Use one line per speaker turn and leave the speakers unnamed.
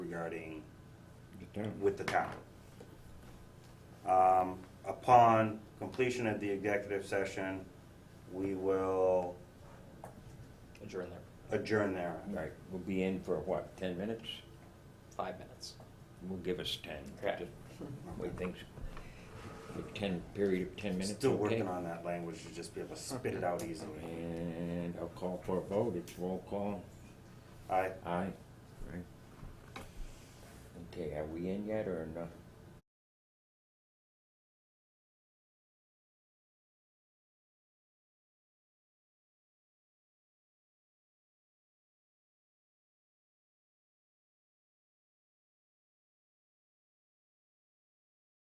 regarding,
The town.
with the town. Um, Upon completion of the executive session, we will
adjourn there,
adjourn there.
Right, we'll be in for what, ten minutes?
five minutes.
We'll give us ten.
Correct.
Just Wait, things, a ten, period of ten minutes,
Still
okay?
working on that language, to just be able to spit it out easily.
And I'll call for a vote, it's roll call,
Aye.
aye. Right. Okay, are we in yet or not?